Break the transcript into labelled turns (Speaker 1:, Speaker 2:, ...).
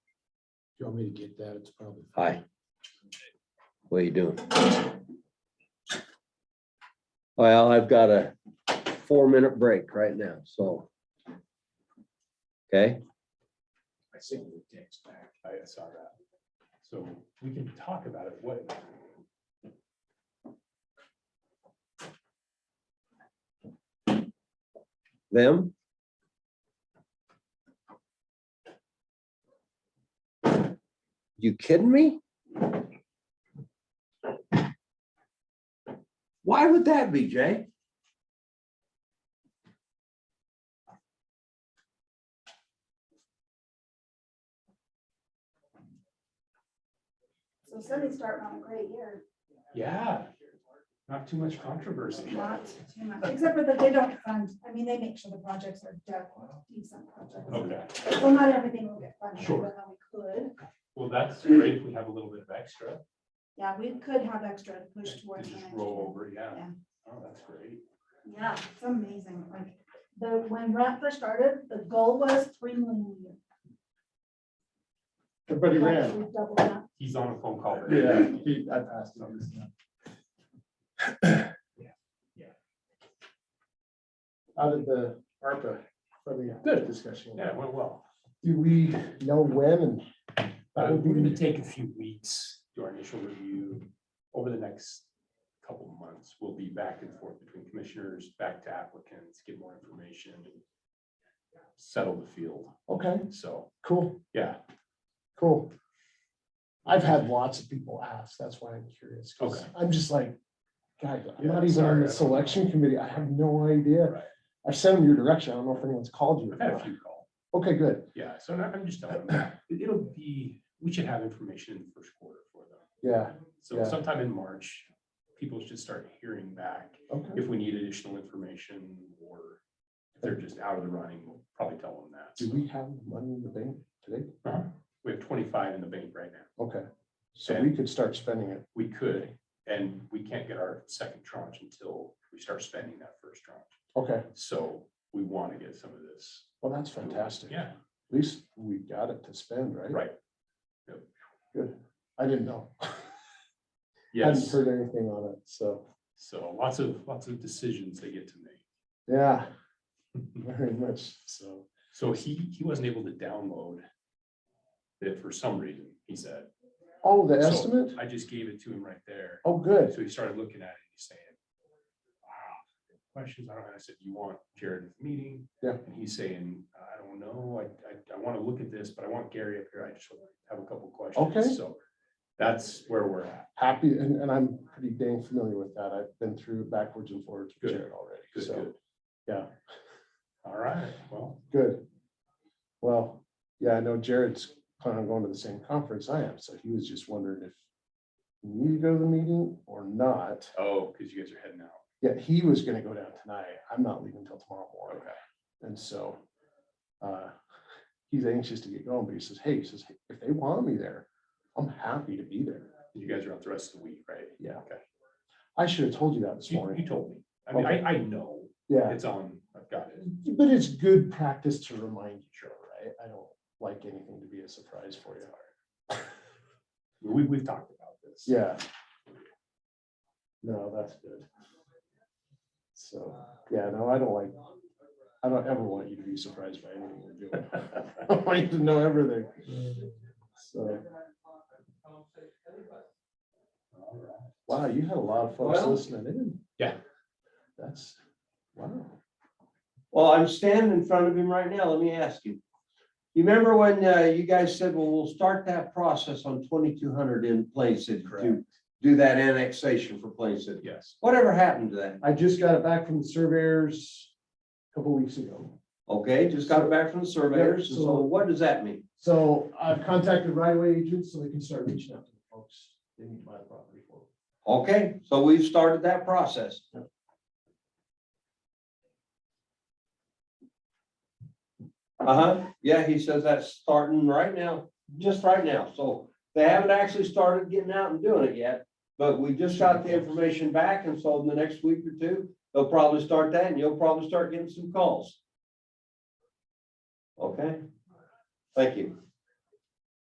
Speaker 1: you want me to get that? It's probably.
Speaker 2: Hi. What are you doing? Well, I've got a four-minute break right now, so. Okay,
Speaker 1: I sent you the text back. I saw that. So we can talk about it. What?
Speaker 2: them? You kidding me? Why would that be, Jay?
Speaker 3: So Cindy's starting on a great year,
Speaker 1: Yeah. Not too much controversy.
Speaker 3: not too much, except for that they don't fund, I mean, they make sure the projects are de- decent projects.
Speaker 1: Okay,
Speaker 3: Well, not everything will get funded,
Speaker 1: Sure.
Speaker 3: but we could,
Speaker 1: well, that's great. if We have a little bit of extra.
Speaker 3: yeah, we could have extra to push
Speaker 1: To
Speaker 3: towards. the
Speaker 1: just
Speaker 3: next
Speaker 1: roll
Speaker 3: year.
Speaker 1: over, yeah.
Speaker 3: Yeah.
Speaker 1: Oh, that's great.
Speaker 3: Yeah, it's amazing, like, the, when Grant first started, the goal was three million a year.
Speaker 4: Everybody ran.
Speaker 3: We've doubled that.
Speaker 1: He's on a phone call.
Speaker 4: Yeah, he, I passed it on this. now. Out of the ARPA, probably a good discussion.
Speaker 1: Yeah, it went well.
Speaker 4: Do we know when and?
Speaker 1: Uh,
Speaker 4: that would
Speaker 1: We're gonna
Speaker 4: be-
Speaker 1: take a few weeks, do our initial review. Over the next couple of months, we'll be back and forth between commissioners, back to applicants, get more information. Settle the field,
Speaker 4: Okay,
Speaker 1: so,
Speaker 4: cool,
Speaker 1: yeah,
Speaker 4: cool. I've had lots of people ask, that's why I'm curious, 'cause
Speaker 1: Okay.
Speaker 4: I'm just like, God, I'm
Speaker 1: Yeah,
Speaker 4: not even
Speaker 1: sorry, I
Speaker 4: on
Speaker 1: don't
Speaker 4: the selection committee, I have no idea.
Speaker 1: Right.
Speaker 4: I've sent them your direction, I don't know if anyone's called you. or
Speaker 1: I've had a
Speaker 4: not.
Speaker 1: few calls.
Speaker 4: Okay, good,
Speaker 1: Yeah, so now I'm just telling them, it- it'll be, we should have information in the first quarter for them.
Speaker 4: yeah,
Speaker 1: So
Speaker 4: Yeah.
Speaker 1: sometime in March, people should start hearing back
Speaker 4: okay.
Speaker 1: if we need additional information or if they're just out of the running, we'll probably tell them that.
Speaker 4: Do
Speaker 1: So,
Speaker 4: we have money in the bank today?
Speaker 1: uh-huh, We have twenty-five in the bank right now.
Speaker 4: Okay, so we could start spending it.
Speaker 1: We could, and we can't get our second tranche until we start spending that first tranche.
Speaker 4: Okay,
Speaker 1: So we want to get some of this.
Speaker 4: well, that's fantastic.
Speaker 1: Yeah,
Speaker 4: At least we got it to spend, right?
Speaker 1: right.
Speaker 4: Good. I didn't know. Hadn't
Speaker 1: Yes.
Speaker 4: heard anything on it, so,
Speaker 1: So lots of, lots of decisions they get to make.
Speaker 4: yeah. Very much, so.
Speaker 1: So he, he wasn't able to download it for some reason, he said.
Speaker 4: Oh, the
Speaker 1: So
Speaker 4: estimate?
Speaker 1: I just gave it to him right there.
Speaker 4: Oh, good.
Speaker 1: So he started looking at it, he's saying, wow, questions, I don't know, I said, you want Jared at the meeting?
Speaker 4: Yeah.
Speaker 1: And he's saying, I don't know, I, I, I want to look at this, but I want Gary up here, I just want to have a couple questions.
Speaker 4: Okay.
Speaker 1: So that's where we're at,
Speaker 4: Happy, and, and I'm pretty dang familiar with that. I've been through backwards and forwards with
Speaker 1: Good.
Speaker 4: Jared already,
Speaker 1: good,
Speaker 4: so,
Speaker 1: good.
Speaker 4: yeah,
Speaker 1: All right, well,
Speaker 4: good. Well, yeah, I know Jared's planning on going to the same conference I am, so he was just wondering if he needed to go to the meeting or not.
Speaker 1: oh, because you guys are heading out,
Speaker 4: Yeah, he was gonna go down tonight. I'm not leaving until tomorrow morning.
Speaker 1: okay,
Speaker 4: And so uh, he's anxious to get going, but he says, hey, he says, if they want me there, I'm happy to be there.
Speaker 1: you guys are out the rest of the week, right?
Speaker 4: Yeah.
Speaker 1: Okay.
Speaker 4: I should have told you that this
Speaker 1: You, you
Speaker 4: morning.
Speaker 1: told me, I mean, I, I know,
Speaker 4: Yeah,
Speaker 1: it's on, I've got it.
Speaker 4: but it's good practice to remind each other, right? I don't like anything to be a surprise for you.
Speaker 1: We, we've talked about this.
Speaker 4: Yeah. No, that's good. So, yeah, no, I don't like, I don't ever want you to be surprised by anything we're doing. I want you to know everything. So. Wow, you had a lot of folks
Speaker 2: Well-
Speaker 4: listening in.
Speaker 1: Yeah.
Speaker 4: That's, wow.
Speaker 2: Well, I'm standing in front of him right now. Let me ask you. You remember when uh, you guys said, well, we'll start that process on twenty-two hundred in Plain City to
Speaker 1: Correct.
Speaker 2: do that annexation for Plain City?
Speaker 1: Yes.
Speaker 2: Whatever happened to that?
Speaker 4: I just got it back from the surveyors a couple weeks ago.
Speaker 2: Okay, just got it back from the surveyors. and So
Speaker 4: so-
Speaker 2: what does that mean?
Speaker 4: So I've contacted right away agents so they can start reaching out to the folks. They need to buy the property for them.
Speaker 2: Okay, so we've started that process. Uh-huh, yeah, he says that's starting right now, just right now, so they haven't actually started getting out and doing it yet. But we just got the information back, and so in the next week or two, they'll probably start that, and you'll probably start getting some calls. Okay, thank you.